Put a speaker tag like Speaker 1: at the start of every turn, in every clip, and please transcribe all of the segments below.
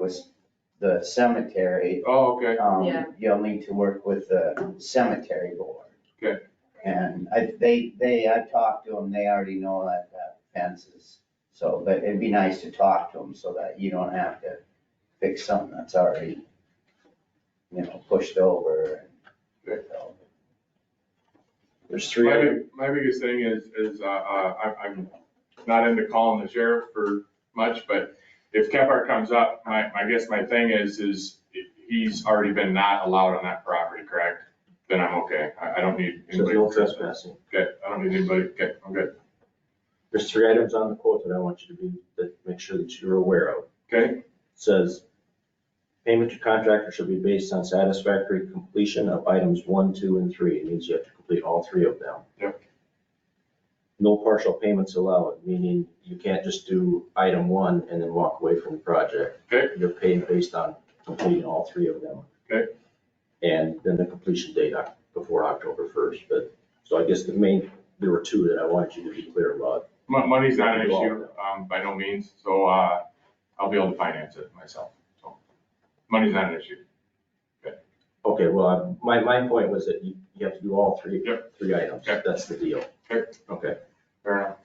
Speaker 1: with the cemetery,
Speaker 2: Oh, okay,
Speaker 1: um,
Speaker 3: Yeah.
Speaker 1: you'll need to work with the cemetery board.
Speaker 2: Okay.
Speaker 1: And I, they, they, I talked to them, they already know that, that fence is, so, but it'd be nice to talk to them so that you don't have to fix something that's already, you know, pushed over. and- so.
Speaker 4: There's three
Speaker 2: my,
Speaker 4: other,
Speaker 2: big- my biggest thing is, is, uh, uh, I, I'm not into calling the sheriff for much, but if Kepler comes up, my, I guess my thing is, is he's already been not allowed on that property, correct? Then I'm okay, I, I don't need
Speaker 4: so
Speaker 2: anybody.
Speaker 4: no trespassing.
Speaker 2: Okay, I don't need anybody, okay, I'm good,
Speaker 4: There's three items on the quote that I want you to be, that, make sure that you're aware of.
Speaker 2: okay,
Speaker 4: Says, payment to contractor shall be based on satisfactory completion of items one, two, and three. It means you have to complete all three of them.
Speaker 2: Yep.
Speaker 4: No partial payments allowed, meaning you can't just do item one and then walk away from the project.
Speaker 2: Okay.
Speaker 4: You're paid based on completing all three of them.
Speaker 2: Okay.
Speaker 4: And then the completion date oc- before October first, but, so I guess the main, there were two that I wanted you to be clear about.
Speaker 2: Mon- money's not an issue, um, by no means, so, uh, I'll be able to finance it myself, so. Money's not an issue,
Speaker 4: Okay, well, I- my, my point was that you, you have to do all three, three items.
Speaker 2: Yep.
Speaker 4: That's the deal.
Speaker 2: Okay.
Speaker 4: Okay.
Speaker 2: fair enough.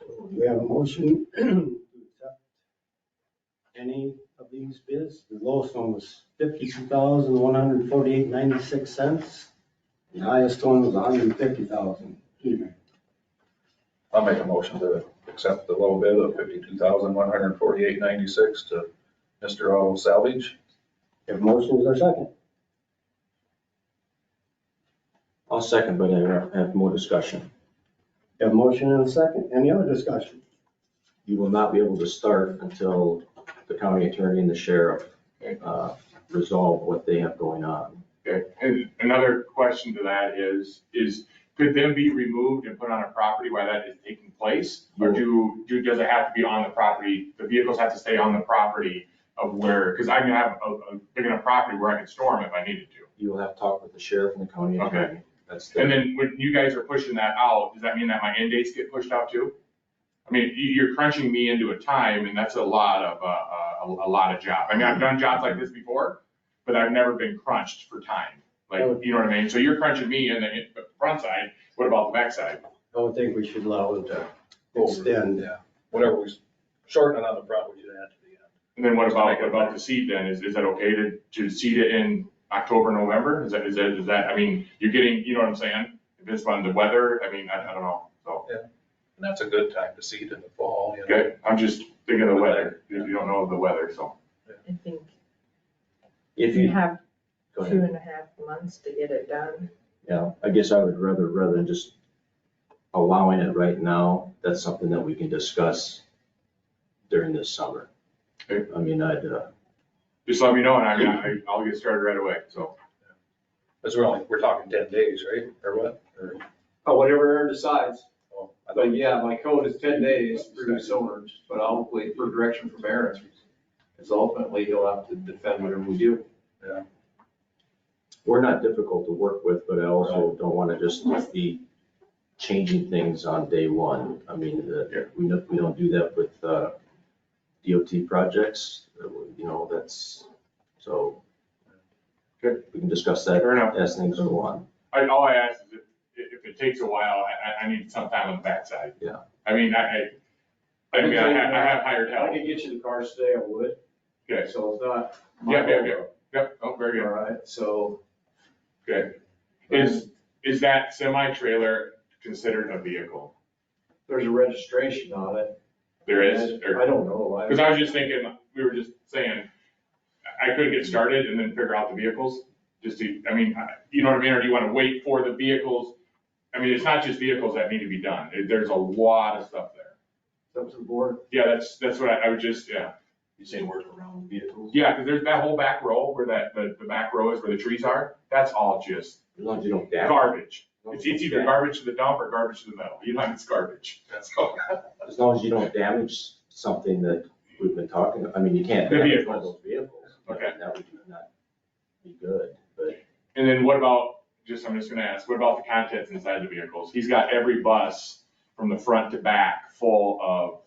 Speaker 5: Do We have a motion to accept any of these bids. The lowest one was fifty-two thousand, one hundred and forty-eight, ninety-six cents. The highest one was hundred and fifty thousand.
Speaker 6: I'll make a motion to accept the low bid of fifty-two thousand, one hundred and forty-eight ninety-six to Mr. Auto Salvage.
Speaker 5: If motion is our second,
Speaker 4: I'll second, but I have more discussion.
Speaker 5: if motion and a second, any other discussion?
Speaker 4: You will not be able to start until the county attorney and the sheriff uh, resolve what they have going on.
Speaker 2: Okay, and another question to that is, is could them be removed and put on a property while that is taking place? Or do, do, does it have to be on the property, the vehicles have to stay on the property of where, because I can have a, a big enough property where I can store them if I needed to.
Speaker 4: You will have to talk with the sheriff and the county attorney. That's
Speaker 2: And
Speaker 4: the,
Speaker 2: then when you guys are pushing that out, does that mean that my end dates get pushed out too? I mean, you, you're crunching me into a time and that's a lot of, uh, uh, a, a lot of job. I mean, I've done jobs like this before, but I've never been crunched for time. Like, you know what I mean? So you're crunching me in the, in the front side, what about the back side?
Speaker 5: I would think we should allow it to
Speaker 6: Over.
Speaker 5: extend.
Speaker 6: Yeah. Whatever we, s- shorten it on the property to add to the end.
Speaker 2: And then what about, what about the seed then? Is, is that okay to, to seed it in October, November? Is that, is that, is that, I mean, you're getting, you know what I'm saying? If it's on the weather, I mean, I, I don't know, so.
Speaker 6: And that's a good time to seed in the fall, you know.
Speaker 2: Okay, I'm just thinking of the weather, if you don't know of the weather, so.
Speaker 3: I think
Speaker 4: if
Speaker 3: you
Speaker 4: you,
Speaker 3: have
Speaker 4: go
Speaker 3: two
Speaker 4: ahead.
Speaker 3: and a half months to get it done.
Speaker 4: Yeah, I guess I would rather, rather than just allowing it right now, that's something that we can discuss during this summer.
Speaker 2: Okay.
Speaker 4: I mean, I'd, uh,
Speaker 2: Just let me know and I, I- I'll get started right away, so.
Speaker 6: Because we're only, we're talking ten days, right? Or what? Or,
Speaker 7: Oh, whatever Aaron decides.
Speaker 6: oh, I thought
Speaker 7: But yeah, my code is ten days for new owners, but I'll wait for direction from Aaron. Because ultimately, he'll have to defend whatever we do.
Speaker 4: we're not difficult to work with, but I also don't want to just be changing things on day one. I mean, uh,
Speaker 2: Yeah.
Speaker 4: we don't, we don't do that with uh, DOT projects, uh, you know, that's, so.
Speaker 2: Good.
Speaker 4: We can discuss that
Speaker 2: Fair enough.
Speaker 4: as things go on.
Speaker 2: I, all I ask is if, if it takes a while, I, I, I need some time on the backside.
Speaker 4: Yeah.
Speaker 2: I mean, I, I, I mean, I have, I have hired
Speaker 7: If I
Speaker 2: help.
Speaker 7: could get you the cars today, I would.
Speaker 2: Okay,
Speaker 7: So it's not.
Speaker 2: yeah, yeah, yeah, yep, oh, very
Speaker 7: All
Speaker 2: good.
Speaker 7: right, so.
Speaker 2: Okay. Is, is that semi-trailer considered a vehicle?
Speaker 7: There's a registration on it.
Speaker 2: There is, or-
Speaker 7: I don't know. I-
Speaker 2: cause I was just thinking, we were just saying, I I could get started and then figure out the vehicles, just to, I mean, I- you know what I mean, or do you wanna wait for the vehicles? I mean, it's not just vehicles that need to be done, There- there's a lot of stuff there.
Speaker 7: It's up to the board.
Speaker 2: Yeah, that's, that's what I, I would just, yeah,
Speaker 7: You say work around vehicles.
Speaker 2: yeah, because there's that whole back row where that, the, the back row is where the trees are, that's all just
Speaker 4: As long as you don't dab.
Speaker 2: garbage.
Speaker 4: as long as
Speaker 2: It's,
Speaker 4: you
Speaker 2: it's
Speaker 4: don't
Speaker 2: either
Speaker 4: dab-
Speaker 2: garbage to the dump or garbage to the metal, you know, it's garbage, that's all.
Speaker 4: As long as you don't damage something that we've been talking, I mean, you can't.
Speaker 2: The
Speaker 4: damage one of those Vehicles.
Speaker 2: Okay.
Speaker 4: That would not be good, but.
Speaker 2: And then what about, just, I'm just gonna ask, what about the contents inside the vehicles? He's got every bus from the front to back full of